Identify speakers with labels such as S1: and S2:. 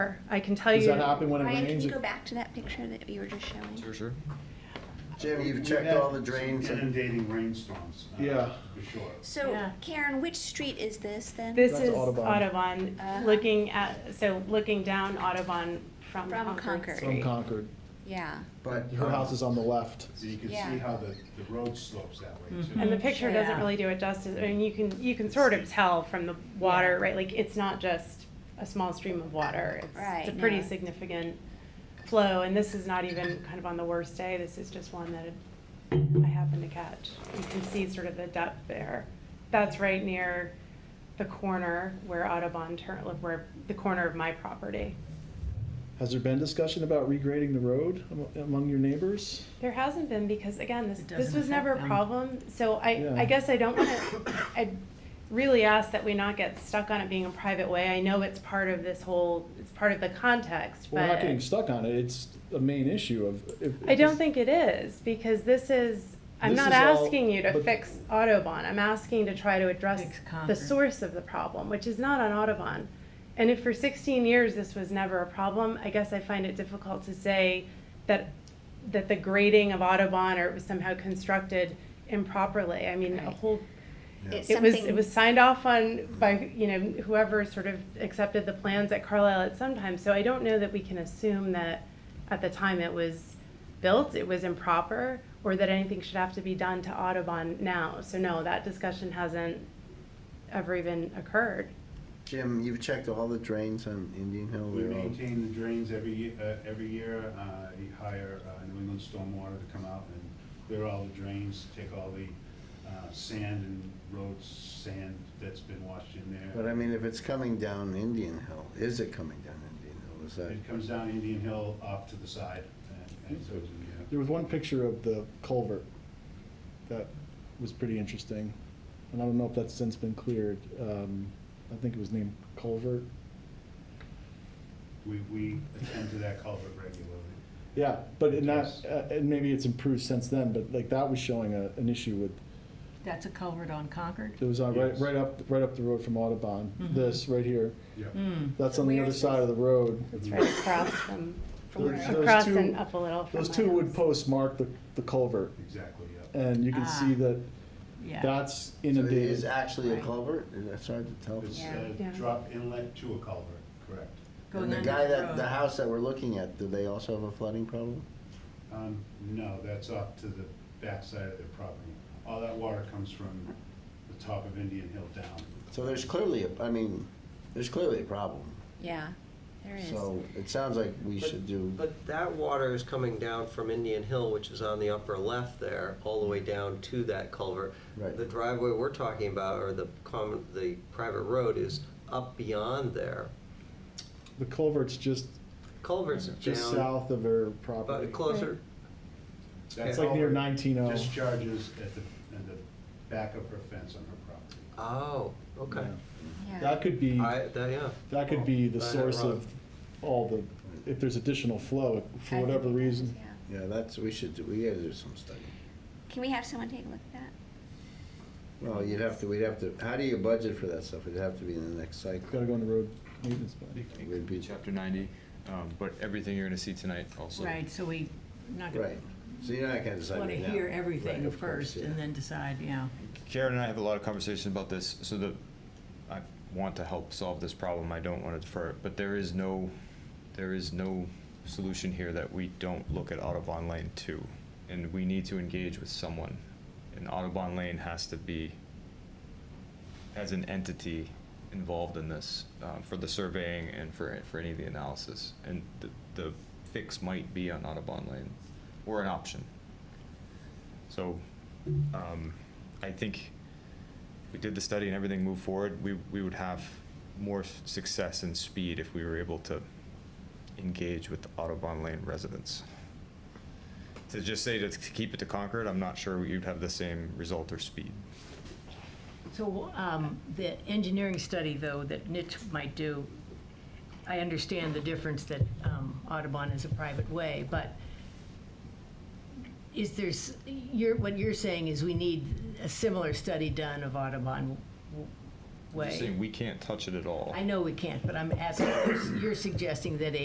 S1: I can tell
S2: Does
S1: you,
S2: that happen when it
S3: Ryan, can
S2: rains?
S3: you go back to that picture that you were just showing?
S4: Sure, sure.
S5: Jim, you've
S6: We've
S5: checked
S6: had
S5: all the
S6: some
S5: drains and
S6: Inundating rainstorms. uh,
S2: Yeah.
S6: For sure.
S3: So
S1: Yeah.
S3: Karen, which street is this then?
S1: this
S2: That's
S1: is
S2: Audubon.
S1: Audubon,
S3: Uh-huh.
S1: looking at, so looking down Audubon from
S3: From Concord.
S1: Concord
S2: From
S1: Street.
S2: Concord.
S3: Yeah,
S5: but um,
S2: Her house is on the left.
S6: So you can see
S3: Yeah.
S6: how the, the road slopes that way too.
S1: And the picture doesn't
S3: Yeah.
S1: really do it justice, I mean, you can, you can sort of tell from the water, right, like, it's not just a small stream of water. It's-
S3: Right,
S1: It's a pretty
S3: no.
S1: significant flow, and this is not even kind of on the worst day, this is just one that I happened to catch. You can see sort of the depth there. That's right near the corner where Audubon turn, where, the corner of my property.
S2: Has there been discussion about regrading the road amo- among your neighbors?
S1: There hasn't been, because again, this,
S7: It
S1: this
S7: doesn't
S1: was never
S7: affect
S1: a
S7: them.
S1: problem, so I,
S2: Yeah.
S1: I guess I don't wanna, I really ask that we not get stuck on it being a private way, I know it's part of this whole, it's part of the context,
S2: We're not
S1: but
S2: getting stuck on it, it's a main issue of. if-
S1: I don't think it is, because this is, I'm
S2: This
S1: not
S2: is all-
S1: asking you to
S2: but-
S1: fix Autobahn, I'm asking to try to address
S7: Fix
S1: the
S7: Concord.
S1: source of the problem, which is not on Autobahn. And if for sixteen years this was never a problem, I guess I find it difficult to say that, that the grading of Autobahn or it was somehow constructed improperly, I mean, a
S7: Right.
S1: whole,
S3: it's
S1: it was,
S3: something.
S1: it was signed off on by, you know, whoever sort of accepted the plans at Carlisle at some time, so I don't know that we can assume that at the time it was built, it was improper, or that anything should have to be done to Audubon now, so no, that discussion hasn't ever even occurred.
S5: Jim, you've checked all the drains on Indian Hill
S6: We
S5: They're all-
S6: maintain the drains every, ye- uh, every year, uh, you hire, uh, New England Stormwater to come out and clear all the drains, take all the, uh, sand and road sand that's been washed in there.
S5: But I mean, if it's coming down Indian Hill, is it coming down Indian Hill? Is that,
S6: It comes down Indian Hill off to the side and, and so,
S2: There was one picture of the culvert that was pretty interesting, and I don't know if that's since been cleared. Um, I think it was named culvert.
S6: we, we attend to that culvert regularly.
S2: Yeah, but in that,
S6: Yes.
S2: uh, and maybe it's improved since then, but like that was showing a, an issue with,
S7: That's a culvert on Concord?
S2: it was on right,
S6: Yes.
S2: right up, right up the road from Audubon,
S1: Mm-hmm.
S7: Mhm.
S2: this right here.
S6: Yep.
S7: Mm.
S2: That's on the
S3: Where
S2: other
S3: is
S2: side of the road.
S1: It's right across from,
S2: Those- those
S1: across
S2: two-
S1: and up a little from
S2: Those
S1: my
S2: two wood
S1: house.
S2: posts mark the, the culvert,
S6: Exactly, yep.
S2: and you can see
S7: Ah.
S2: that
S7: Yeah.
S2: that's
S5: so it is
S2: inundated.
S5: actually a
S7: Right.
S5: culvert? Is that hard to tell?
S6: It's
S3: Yeah.
S6: a
S1: Yeah.
S6: uh, drop inlet to a culvert, correct.
S7: Going
S5: And the
S7: under
S5: guy that,
S7: road.
S5: the house that we're looking at, do they also have a flooding problem?
S6: Um, no, that's off to the backside of their property. All that water comes from the top of Indian Hill down.
S5: So there's clearly, a. I mean, there's clearly a problem.
S3: Yeah, there is.
S5: So it sounds like we
S8: But-
S5: should do,
S8: But that water is coming down from Indian Hill, which is on the upper left there, all the way down to that culvert.
S5: Right.
S8: The driveway we're talking about, or the common, the private road is up beyond there.
S2: The culvert's just,
S8: Culvert's
S2: just
S8: down,
S2: south of her property.
S8: but closer,
S6: That
S8: It's like
S2: near oh.
S6: culvert
S2: 19-0.
S6: Discharges at the, at the back of her fence on her property.
S8: oh, okay.
S3: Yeah.
S2: That could be,
S8: I, that, yeah.
S2: that could be the
S8: I had it
S2: source
S8: wrong.
S2: of all the, if there's additional flow, for
S3: I
S2: whatever
S3: think it is,
S2: reason.
S3: yeah.
S5: yeah, that's, we should do, we gotta do some study.
S3: Can we have someone take a look at that?
S5: Well, you'd have to, we'd have to, how do you budget for that stuff? It'd have to be in the next
S2: Gotta
S5: cycle.
S2: go on the road maintenance plan.
S5: It
S4: It
S5: would
S4: could be
S5: be-
S4: chapter ninety, um, but everything you're gonna see tonight also.
S7: Right, so we not
S5: Right, so you're not gonna decide
S7: want
S5: right
S7: to
S5: now.
S7: hear
S5: Right,
S7: everything
S5: of course,
S7: first
S5: yeah.
S7: and then decide, yeah.
S4: Karen and I have a lot of conversations about this, so the, I want to help solve this problem, I don't wanna defer it, but there is no, there is no solution here that we don't look at Audubon Lane too. And we need to engage with someone, and Audubon Lane has to be, as an entity involved in this, uh, for the surveying and for, for any of the analysis. And the, the fix might be on Audubon Lane, or an option. So, um, I think if we did the study and everything moved forward, we, we would have more s- success and speed if we were able to engage with the Audubon Lane residents. To just say to to keep it to Concord, I'm not sure you'd have the same result or speed.
S7: So um, the engineering study, though, that Nitch might do, I understand the difference that um, Audubon is a private way, but is there's, you're, what you're saying is we need a similar study done of Audubon
S4: I'm just
S7: way.
S4: saying, we can't touch it at all.
S7: I know we can't, but I'm asking, you're suggesting that a